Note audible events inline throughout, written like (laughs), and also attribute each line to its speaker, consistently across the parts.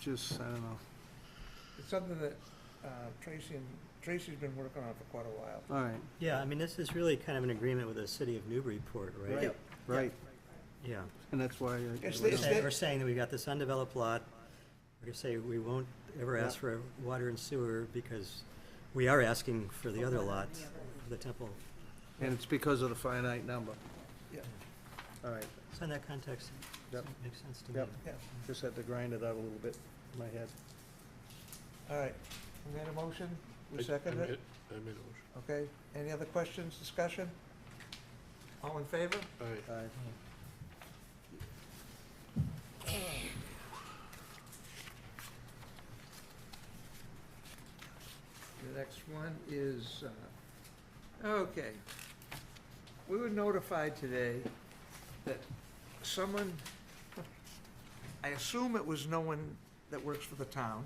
Speaker 1: just, I don't know.
Speaker 2: It's something that uh, Tracy and, Tracy's been working on for quite a while.
Speaker 1: All right,
Speaker 3: Yeah, I mean, this is really kind of an agreement with the city of Newburyport, right?
Speaker 1: Right. right,
Speaker 3: Yeah.
Speaker 1: and that's why. I-
Speaker 2: It's
Speaker 3: We're
Speaker 2: Is
Speaker 3: saying,
Speaker 2: that-
Speaker 3: we're saying that we've got this undeveloped lot. We're gonna say we won't ever ask
Speaker 1: Yeah.
Speaker 3: for water and sewer because we are asking for the other lot, the temple.
Speaker 1: And it's because of the finite number.
Speaker 2: Yeah,
Speaker 1: All right,
Speaker 3: So in that context, it
Speaker 1: Yep.
Speaker 3: makes sense to me.
Speaker 1: Yep.
Speaker 2: yeah.
Speaker 1: just had to grind it out a little bit in my head.
Speaker 2: All right. We got a motion?
Speaker 4: I-
Speaker 2: We
Speaker 4: I
Speaker 2: second
Speaker 4: made-
Speaker 2: it?
Speaker 4: I made a motion.
Speaker 2: Okay. Any other questions, discussion? All in favor?
Speaker 4: All right,
Speaker 1: All right.
Speaker 2: The next one is, uh, okay. We were notified today that someone, I assume it was no one that works for the town,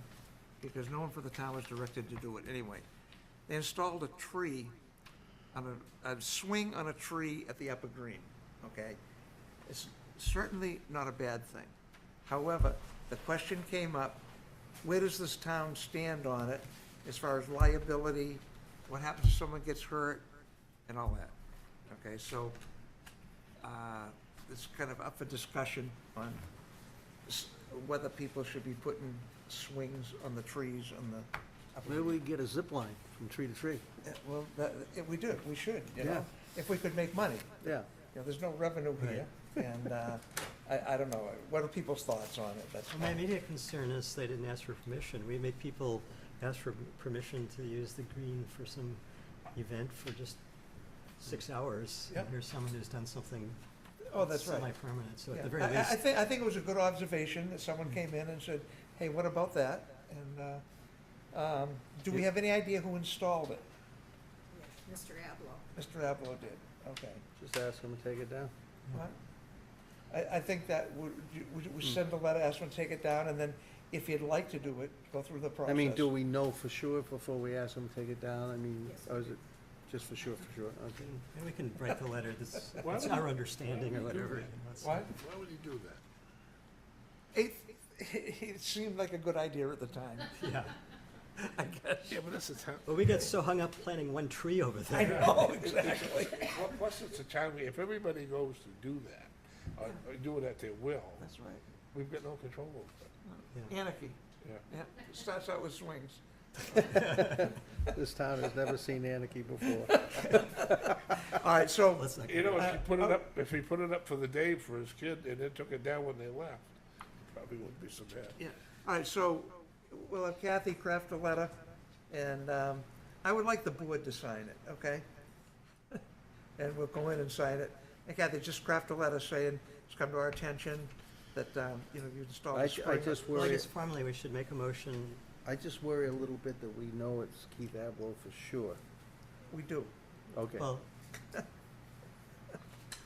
Speaker 2: because no one for the town was directed to do it anyway. They installed a tree on a, a swing on a tree at the upper green, okay? It's certainly not a bad thing. However, the question came up, where does this town stand on it as far as liability? What happens if someone gets hurt and all that? Okay, so, uh, it's kind of up for discussion on s- whether people should be putting swings on the trees on the. upper
Speaker 1: Maybe we get a zip line from tree to tree.
Speaker 2: yeah, Well, that, yeah, we do, we should,
Speaker 1: Yeah.
Speaker 2: you know, if we could make money.
Speaker 1: Yeah,
Speaker 2: You know, there's no revenue here, and, uh, I, I don't know, what are people's thoughts on it, that's
Speaker 3: Well, my
Speaker 2: all.
Speaker 3: immediate concern is they didn't ask for permission. We make people ask for permission to use the green for some event for just six hours.
Speaker 2: Yeah.
Speaker 3: And Here's someone who's done something
Speaker 2: Oh, that's right.
Speaker 3: semi-permanent, so
Speaker 2: Yeah.
Speaker 3: at the very
Speaker 2: I- I- I
Speaker 3: least,
Speaker 2: think, I think it was a good observation that someone came in and said, hey, what about that? And, uh, um, do we have any idea who installed it?
Speaker 5: Mr. Ablo.
Speaker 2: Mr. Avalo did, okay.
Speaker 1: just ask them to take it down.
Speaker 2: What? I, I think that would, you- would, would send a letter, ask them to take it down, and then if you'd like to do it, go through the process.
Speaker 1: I mean, do we know for sure before we ask them to take it down? I mean,
Speaker 5: Yes.
Speaker 1: or is it just for sure, for sure? Okay.
Speaker 3: and we can write the letter, this,
Speaker 4: Why
Speaker 3: it's
Speaker 4: would
Speaker 3: our understanding or
Speaker 4: why would you do
Speaker 3: whatever.
Speaker 4: that?
Speaker 3: and let's-
Speaker 2: What?
Speaker 4: why would you do that?
Speaker 2: It, (laughs) it seemed like a good idea at the time.
Speaker 3: (laughs) Yeah,
Speaker 2: I guess.
Speaker 4: Yeah, but that's the town,
Speaker 3: well, we got so hung up planting one tree over
Speaker 2: I
Speaker 3: (laughs) there.
Speaker 2: know, exactly.
Speaker 4: Well, plus it's a town, meeting. if everybody goes to do that, or or do it at their will,
Speaker 2: That's right.
Speaker 4: we've got no control over
Speaker 3: Yeah.
Speaker 2: Anarchy,
Speaker 4: it. Yeah.
Speaker 2: yeah, starts out with swings.
Speaker 1: (laughs) This town has never seen anarchy before.
Speaker 2: All right, so,
Speaker 3: Let's not-
Speaker 4: You know, if you
Speaker 2: Uh,
Speaker 4: put it
Speaker 2: oh.
Speaker 4: up, if he put it up for the day for his kid and then took it down when they left, it probably wouldn't be so bad.
Speaker 2: yeah, all right, so we'll have Kathy craft a letter, and um, I would like the board to sign it, okay? (laughs) And we'll go in and sign it. And Kathy, just craft a letter saying, it's come to our attention that, um, you know, you installed
Speaker 1: I,
Speaker 2: a
Speaker 1: ju- I
Speaker 2: sprinkler.
Speaker 1: just
Speaker 3: Well, I
Speaker 1: worry,
Speaker 3: guess formally, we should make a motion,
Speaker 1: I just worry a little bit that we know it's Keith Abloh for sure.
Speaker 2: We do,
Speaker 1: Okay.
Speaker 3: well, (laughs)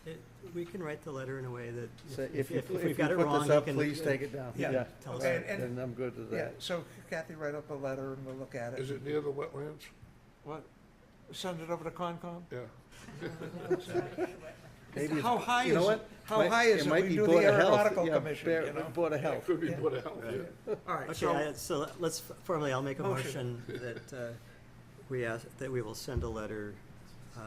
Speaker 3: it- we can write the letter in a way that,
Speaker 1: So if
Speaker 3: if,
Speaker 1: you,
Speaker 3: if
Speaker 1: pl-
Speaker 3: we've
Speaker 1: if you
Speaker 3: got it
Speaker 1: put
Speaker 3: wrong,
Speaker 1: this
Speaker 3: you
Speaker 1: up,
Speaker 3: can.
Speaker 1: please take it down.
Speaker 2: Yeah.
Speaker 3: Tell us.
Speaker 2: Okay, and-
Speaker 1: Then I'm good with
Speaker 2: yeah,
Speaker 1: that.
Speaker 2: so Kathy, write up a letter and we'll look at it.
Speaker 4: Is it near the wetlands?
Speaker 2: What? Send it over to Concom?
Speaker 4: Yeah.
Speaker 1: Maybe it's-
Speaker 2: How high
Speaker 1: you know
Speaker 2: is it?
Speaker 1: what?
Speaker 2: How
Speaker 1: Might-
Speaker 2: high is it?
Speaker 1: might
Speaker 2: We
Speaker 1: be
Speaker 2: do the
Speaker 1: Board of Health.
Speaker 2: aeronautical
Speaker 1: Yeah,
Speaker 2: commission,
Speaker 1: Bear-
Speaker 2: you
Speaker 1: (laughs)
Speaker 2: know?
Speaker 1: Board of
Speaker 4: It
Speaker 1: Health.
Speaker 4: could be
Speaker 2: Yeah.
Speaker 4: put out, yeah.
Speaker 2: All right,
Speaker 3: Okay,
Speaker 2: so.
Speaker 3: I- so let- let's, f- formally, I'll make a
Speaker 2: Motion.
Speaker 3: motion that uh, we ask, that we will send a letter uh,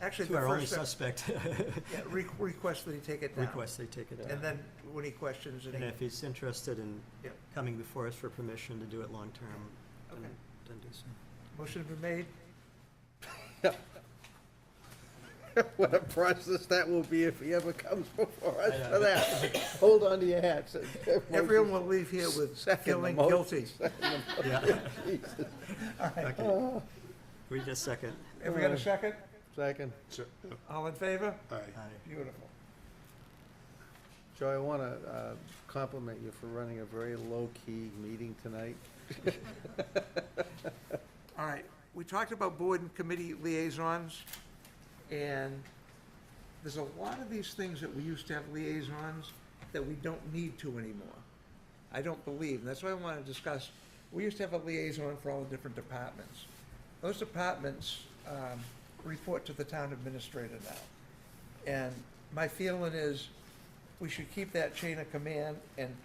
Speaker 2: Actually,
Speaker 3: to
Speaker 2: the
Speaker 3: our only
Speaker 2: first, step-
Speaker 3: suspect, (laughs)
Speaker 2: yeah, re- request that he take it down.
Speaker 3: request they take it down.
Speaker 2: And then when he questions it,
Speaker 3: And
Speaker 2: he-
Speaker 3: if he's interested in
Speaker 2: Yep.
Speaker 3: coming before us for permission to do it long-term, then
Speaker 2: Okay.
Speaker 3: then do so.
Speaker 2: motion been made,
Speaker 1: (laughs) What a process that will be if he ever comes before
Speaker 3: I
Speaker 1: us
Speaker 3: know.
Speaker 1: for that. (laughs) Hold on to your (laughs) hats.
Speaker 2: everyone will leave here with
Speaker 1: Second the
Speaker 2: feeling
Speaker 1: motion.
Speaker 2: guilty.
Speaker 1: (laughs)
Speaker 3: Yeah.
Speaker 1: Jesus.
Speaker 3: Okay. We just second.
Speaker 2: Have we got a second?
Speaker 1: Second.
Speaker 4: So, yeah,
Speaker 2: All in favor?
Speaker 4: aye.
Speaker 3: Aye.
Speaker 2: Beautiful.
Speaker 1: Joe, I want to compliment you for running a very low-key meeting tonight.
Speaker 2: All right, we talked about board and committee liaisons, and there's a lot of these things that we used to have liaisons that we don't need to anymore. I don't believe, and that's why I want to discuss, we used to have a liaison for all the different departments. Those departments um, report to the town administrator now. And my feeling is, we should keep that chain of command and